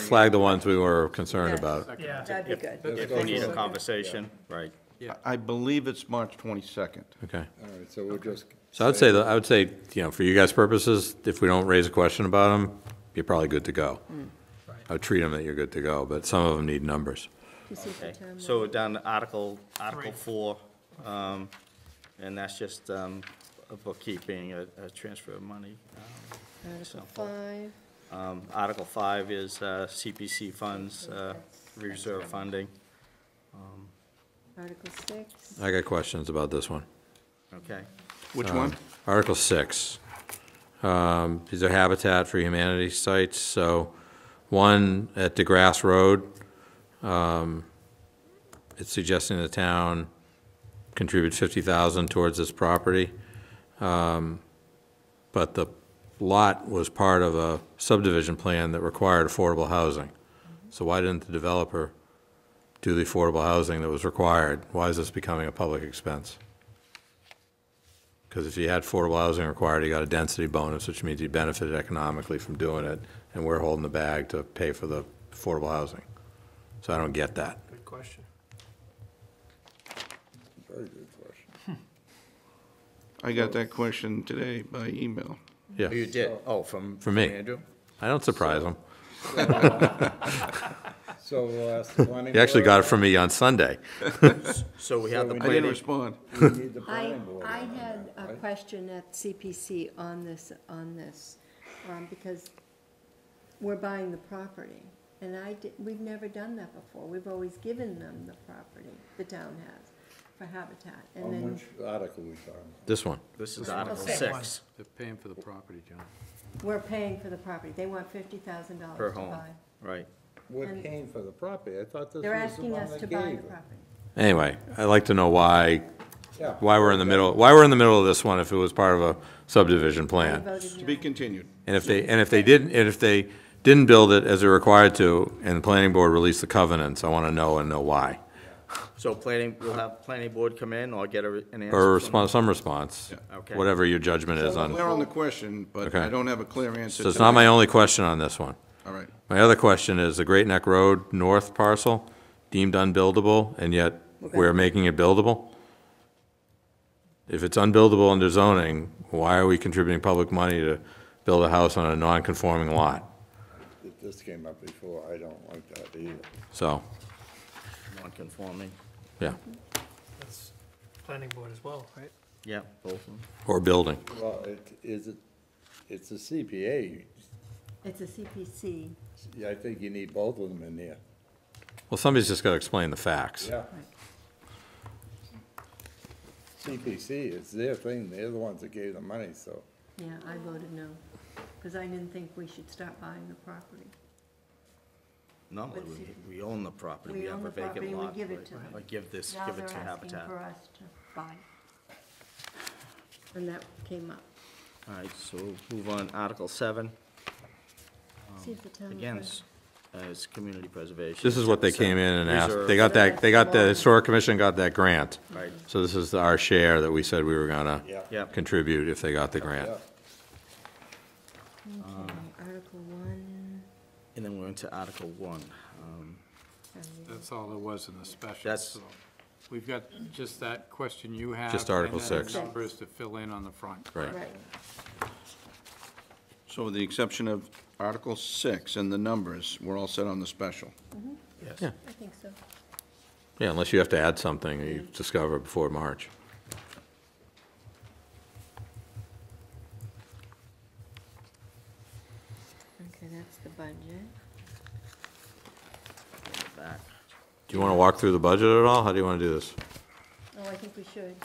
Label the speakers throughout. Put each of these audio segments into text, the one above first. Speaker 1: flag the ones we were concerned
Speaker 2: Yes.
Speaker 1: about.
Speaker 3: Yeah,
Speaker 2: That'd be good.
Speaker 4: If we need a conversation, right.
Speaker 5: I believe it's March 22nd.
Speaker 1: Okay.
Speaker 6: All right, so we'll just,
Speaker 1: So I'd say, that- I would say, you know, for you guys' purposes, if we don't raise a question about them, you're probably good to go. I would treat them that you're good to go, but some of them need numbers.
Speaker 4: Okay, so we're down to Article, Article Four, um, and that's just, um, a bookkeeping, a, a transfer of money. um,
Speaker 2: Article
Speaker 4: so-
Speaker 2: five,
Speaker 4: Um, Article five is, uh, CPC funds, uh, reserve funding,
Speaker 2: article six,
Speaker 1: I got questions about this one.
Speaker 4: okay?
Speaker 5: Which one?
Speaker 4: Uh,
Speaker 1: Article six. Um, These are Habitat for Humanity sites, so one at DeGrasse Road, um, it's suggesting the town contribute fifty thousand towards this property. Um, But the lot was part of a subdivision plan that required affordable housing. So why didn't the developer do the affordable housing that was required? Why is this becoming a public expense? Because if you had affordable housing required, you got a density bonus, which means you benefited economically from doing it, and we're holding the bag to pay for the affordable housing. So I don't get that.
Speaker 3: good question.
Speaker 6: very good question.
Speaker 5: I got that question today by email.
Speaker 1: Yeah,
Speaker 4: You did, oh, from.
Speaker 1: For me.
Speaker 4: from Andrew?
Speaker 1: I don't surprise him.
Speaker 6: So we'll ask the planning board.
Speaker 1: He actually got it from me on Sunday.
Speaker 4: So we have the
Speaker 5: I didn't
Speaker 4: planning,
Speaker 5: respond.
Speaker 6: We need the
Speaker 2: I,
Speaker 6: planning board.
Speaker 2: I
Speaker 6: on
Speaker 2: had
Speaker 6: that,
Speaker 2: a
Speaker 6: right?
Speaker 2: question at CPC on this, on this, um, because we're buying the property. And I did, we've never done that before. We've always given them the property, the town has, for habitat. And
Speaker 6: On
Speaker 2: then,
Speaker 6: which article we talking?
Speaker 1: This one.
Speaker 4: this is Article
Speaker 2: six.
Speaker 4: six,
Speaker 7: They're paying for the property, John.
Speaker 2: we're paying for the property. They want fifty thousand
Speaker 4: per
Speaker 2: dollars to
Speaker 4: home,
Speaker 2: buy.
Speaker 4: right?
Speaker 6: We're
Speaker 2: And-
Speaker 6: paying for the property, I thought this
Speaker 2: They're
Speaker 6: was the
Speaker 2: asking
Speaker 6: one
Speaker 2: us
Speaker 6: that
Speaker 2: to
Speaker 6: gave.
Speaker 2: buy the
Speaker 6: it.
Speaker 2: property.
Speaker 1: Anyway, I'd like to know why,
Speaker 6: Yeah.
Speaker 1: why we're in the middle, why we're in the middle of this one if it was part of a subdivision
Speaker 2: They
Speaker 1: plan.
Speaker 2: voted
Speaker 5: To
Speaker 2: no.
Speaker 5: be continued.
Speaker 1: And if they, and if they didn't, and if they didn't build it as they're required to, and the planning board released the covenants, I want to know and know why.
Speaker 4: So planning, we'll have planning board come in or get a re- an answer.
Speaker 1: Or
Speaker 4: from-
Speaker 1: response, some response,
Speaker 4: Okay.
Speaker 1: whatever your judgment is on.
Speaker 5: Clear on the question, but I
Speaker 1: Okay.
Speaker 5: don't have a clear answer.
Speaker 1: So it's not my
Speaker 5: tonight.
Speaker 1: only question on this one.
Speaker 5: All right.
Speaker 1: My other question is the Great Neck Road North parcel deemed unbuildable, and yet we're making it buildable? If it's unbuildable under zoning, why are we contributing public money to build a house on a non-conforming lot?
Speaker 6: If This came up before, I don't like that either.
Speaker 1: So,
Speaker 4: Non-conforming,
Speaker 1: yeah,
Speaker 3: That's planning board as well, right?
Speaker 4: yeah, both of them.
Speaker 1: or building.
Speaker 6: Well, it, is it, it's a CPA,
Speaker 2: It's a CPC.
Speaker 6: Yeah, I think you need both of them in there.
Speaker 1: Well, somebody's just got to explain the facts.
Speaker 6: Yeah. CPC, it's their thing, they're the ones that gave the money, so.
Speaker 2: Yeah, I voted no, because I didn't think we should start buying the property.
Speaker 4: Normally,
Speaker 2: Let's see.
Speaker 4: we, we own the property, we
Speaker 2: We
Speaker 4: have
Speaker 2: own the
Speaker 4: a
Speaker 2: property,
Speaker 4: vacant
Speaker 2: we
Speaker 4: lot.
Speaker 2: give it
Speaker 4: but-
Speaker 2: to them.
Speaker 4: Like, give this,
Speaker 2: Now
Speaker 4: give
Speaker 2: they're
Speaker 4: it to
Speaker 2: asking
Speaker 4: Habitat.
Speaker 2: for us to buy. And that came up.
Speaker 4: All right, so we'll move on, Article seven,
Speaker 2: See if the town.
Speaker 4: Um, again, it's, uh, it's community preservation.
Speaker 1: This is what they came in and asked. They got
Speaker 2: Reserve.
Speaker 1: that, they got, the Historic Commission got that grant.
Speaker 4: Right.
Speaker 1: So this is our share that we said we were gonna
Speaker 6: Yeah.
Speaker 4: Yeah.
Speaker 1: contribute if they got the grant.
Speaker 6: Yeah.
Speaker 4: um,
Speaker 2: Okay, Article one.
Speaker 4: And then we're into Article one,
Speaker 2: um,
Speaker 4: um,
Speaker 7: That's all there was in the special.
Speaker 4: That's-
Speaker 7: so We've got just that question you have.
Speaker 1: Just Article
Speaker 7: and then
Speaker 1: six.
Speaker 7: Numbers to fill in on the front.
Speaker 1: Right.
Speaker 2: Right,
Speaker 5: So with the exception of Article 6 and the numbers, we're all set on the special.
Speaker 4: yes.
Speaker 1: Yeah.
Speaker 2: I think so.
Speaker 1: Yeah, unless you have to add something that you discover before March.
Speaker 2: Okay, that's the budget.
Speaker 4: Back.
Speaker 1: Do you want to walk through the budget at all? How do you want to do this?
Speaker 2: Oh, I think we should.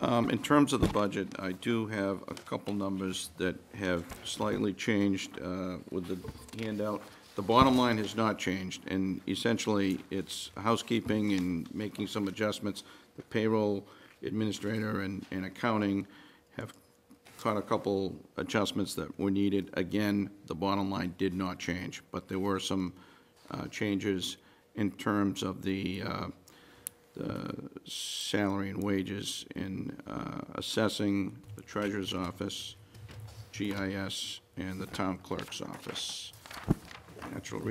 Speaker 5: Um, In terms of the budget, I do have a couple numbers that have slightly changed uh, with the handout. The bottom line has not changed, and essentially, it's housekeeping and making some adjustments. The payroll administrator and and accounting have caught a couple adjustments that were needed. Again, the bottom line did not change, but there were some uh, changes in terms of the uh, the salary and wages in uh, assessing, the treasurer's office, GIS, and the town clerk's office. Natural